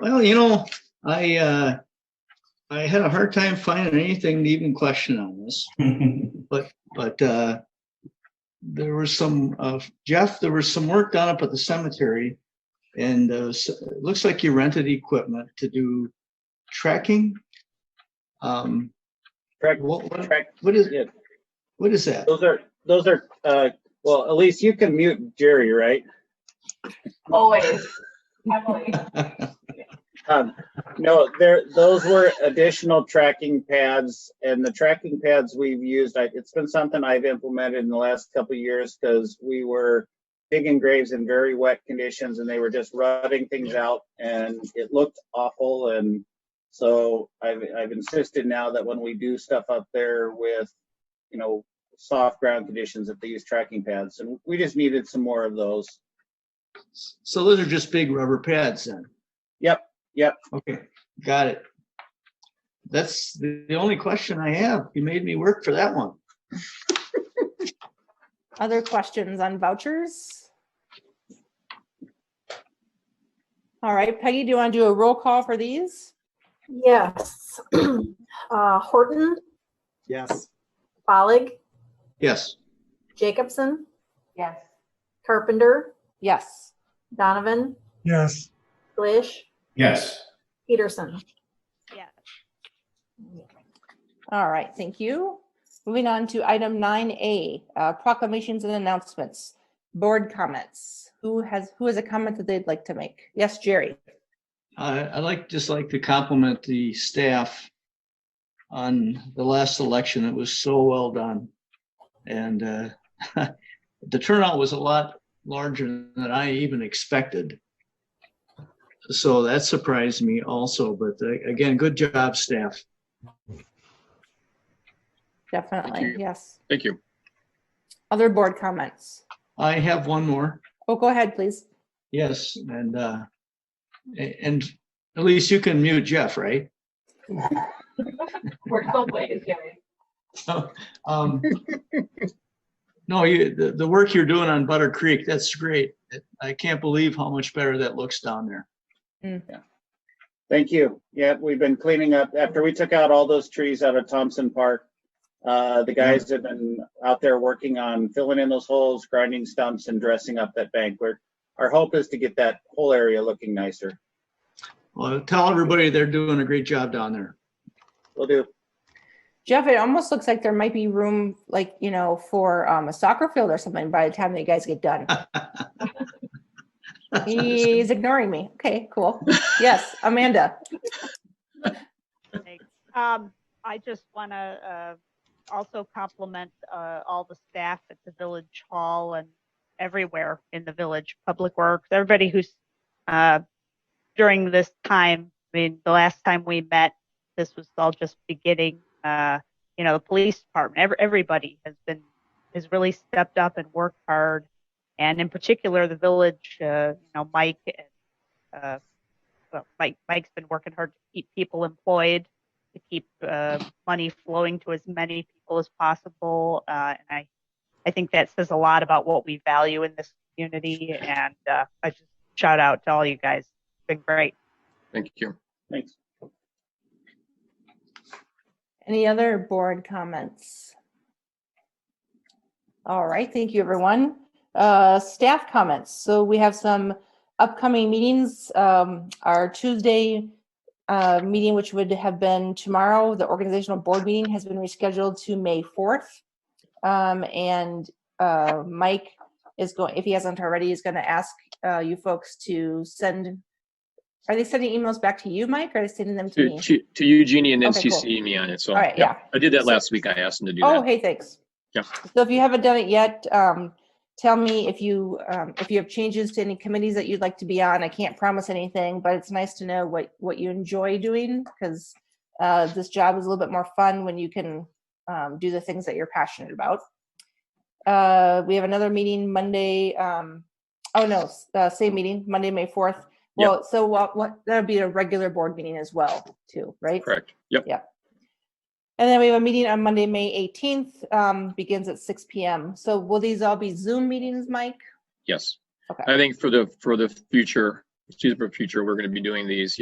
Well, you know, I, uh, I had a hard time finding anything to even question on this, but, uh, there was some, uh, Jeff, there was some work done up at the cemetery. And, uh, s- it looks like you rented equipment to do tracking. Um, Correct. what, what- Correct. what is, Yeah. what is that? Those are, those are, uh, well, Elise, you can mute Jerry, right? Always. Emily. Um, no, there, those were additional tracking pads and the tracking pads we've used, I, it's been something I've implemented in the last couple of years because we were digging graves in very wet conditions and they were just rutting things out and it looked awful and so I've, I've insisted now that when we do stuff up there with, you know, soft ground conditions, that they use tracking pads and we just needed some more of those. So those are just big rubber pads then? Yep, yep. Okay, got it. That's the the only question I have. You made me work for that one. Other questions on vouchers? All right, Peggy, do you want to do a roll call for these? Yes. Uh, Horton, Yes. Follig, Yes, Jacobson, Yes. Carpenter, Yes. Donovan, Yes. Glish, Yes. Peterson. All right, thank you. Moving on to item nine A, uh, proclamations and announcements, board comments. Who has, who has a comment that they'd like to make? Yes, Jerry? I, I'd like, just like to compliment the staff on the last election. It was so well done. And uh, the turnout was a lot larger than I even expected. So that surprised me also, but uh, again, good job, staff. Definitely, you. yes. Thank you. Other board comments? I have one more. Oh, go ahead, please. Yes, and, uh, a- and at least you can mute Jeff, right? We're both ways, Jerry. So, um, No, you, the, the work you're doing on Butter Creek, that's great. I can't believe how much better that looks down there. Thank you. Yeah, we've been cleaning up after we took out all those trees out of Thompson Park. Uh, the guys have been out there working on filling in those holes, grinding stumps and dressing up that bank. We're Our hope is to get that whole area looking nicer. Well, tell everybody they're doing a great job down there. We'll do. Jeff, it almost looks like there might be room, like, you know, for um, a soccer field or something by the time you guys get done. He's ignoring me. Okay, cool. Yes, Amanda. Thanks. Um, I just want to uh, also compliment uh, all the staff at the village hall and everywhere in the village, public works, everybody who's uh, during this time. I mean, the last time we met, this was all just beginning. Uh, you know, the police department, every, everybody has been has really stepped up and worked hard, and in particular, the village. Uh, you know, Mike and uh, well, Mike, Mike's been working hard to keep people employed, to keep uh, money flowing to as many people as possible. Uh, and I, I think that says a lot about what we value in this community. And uh, I just shout out to all you guys. It's been great. Thank you. Thanks. Any other board comments? All right, thank you, everyone. Uh, Staff comments. So we have some upcoming meetings. Um, Our Tuesday uh, meeting, which would have been tomorrow, the organizational board meeting has been rescheduled to May 4th. Um, And uh, Mike is going, if he hasn't already, is going to ask uh, you folks to send, are they sending emails back to you, Mike, or are they sending them to To, me? to- to Eugenie and then Okay, cool. CC me on it. So. All right, yeah. I did that last week. I asked him to do Oh, that. hey, thanks. Yeah. So if you haven't done it yet, um, tell me if you, um, if you have changes to any committees that you'd like to be on. I can't promise anything, but it's nice to know what, what you enjoy doing because uh, this job is a little bit more fun when you can um, do the things that you're passionate about. Uh, we have another meeting Monday, um, oh no, s- uh, same meeting, Monday, May 4th. Yep. Well, so what, what, that'll be a regular board meeting as well, too, right? Correct. Yep. And then we have a meeting on Monday, May 18th, um, begins at 6 PM. So will these all be Zoom meetings, Mike? Yes. Okay. I think for the, for the future, excuse me, for future, we're going to be doing these,